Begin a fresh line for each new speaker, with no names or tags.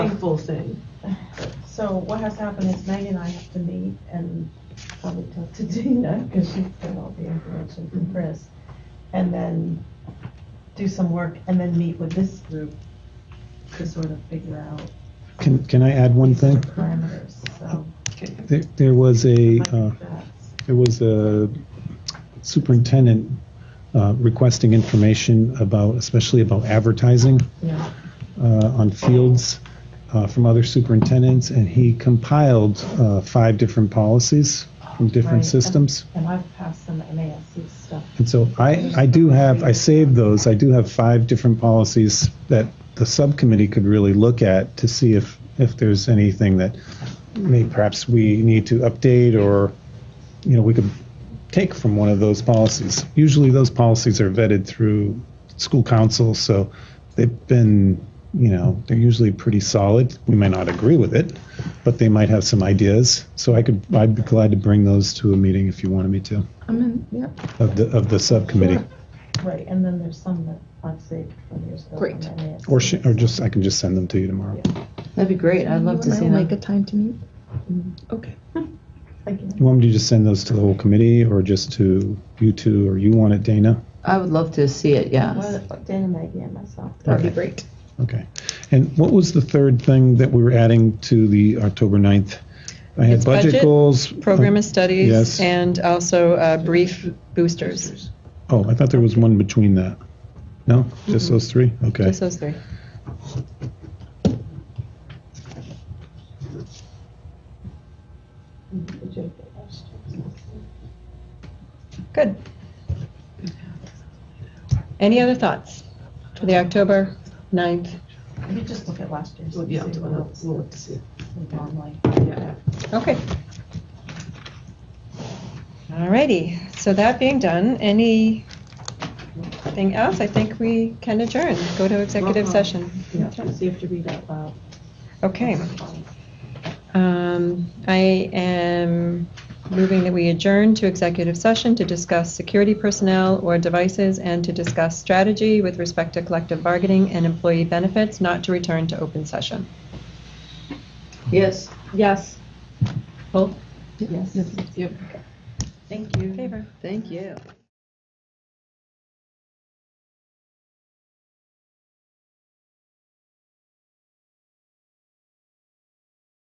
Full thing.
So what has happened is Meg and I have to meet and probably talk to Dina, because she's got all the information from Chris. And then do some work and then meet with this group to sort of figure out
Can, can I add one thing?
parameters, so.
There, there was a,
I
uh,
think that's-
there was a superintendent uh, requesting information about, especially about advertising
Yeah,
uh, on fields uh, from other superintendents, and he compiled uh, five different policies from
Right,
different
and-
systems.
And I've passed some MASC stuff.
And so I, I do have, I saved those, I do have five different policies that the subcommittee could really look at to see if, if there's anything that may, perhaps we need to update or, you know, we could take from one of those policies. Usually those policies are vetted through school council, so they've been, you know, they're usually pretty solid. We may not agree with it, but they might have some ideas. So I could, I'd be glad to bring those to a meeting if you wanted me to,
I'm in, yep.
of the, of the subcommittee.
Right, and then there's some that I've saved from years ago.
Great.
Or sh- or just I can just send them to you tomorrow.
That'd be great. I'd love to see
Make a
that. Mm-hmm.
time to meet.
Okay.
You want me to just send those to the whole committee, or just to you two, or you want it, Dana?
I would love to see it, yes.
Dana, Maggie, and myself.
That'd be
Okay.
great.
Okay. And what was the third thing that we were adding to the October 9th? I had
It's
budget,
budget,
goals. uh,
Program of
Yes.
studies and also uh, brief boosters,
Oh, I thought there was one between that. No, just those three. Okay.
just those three. Good. Any other thoughts for the October 9th?
Maybe just look at last year's.
We'll
and
be
see
out to,
what
we'll
else
look to see.
we normally-
Yeah.
Okay. Alrighty, so that being done, anything else? I think we can adjourn, go to executive
Uh-huh.
session.
Yeah, so you have to read out loud.
Okay. Um, I am moving that we adjourn to executive session to discuss security personnel or devices and to discuss strategy with respect to collective bargaining and employee benefits, not to return to open session.
Yes.
Yes.
Yes.
Yep.
Thank you.
Favor.
Thank you.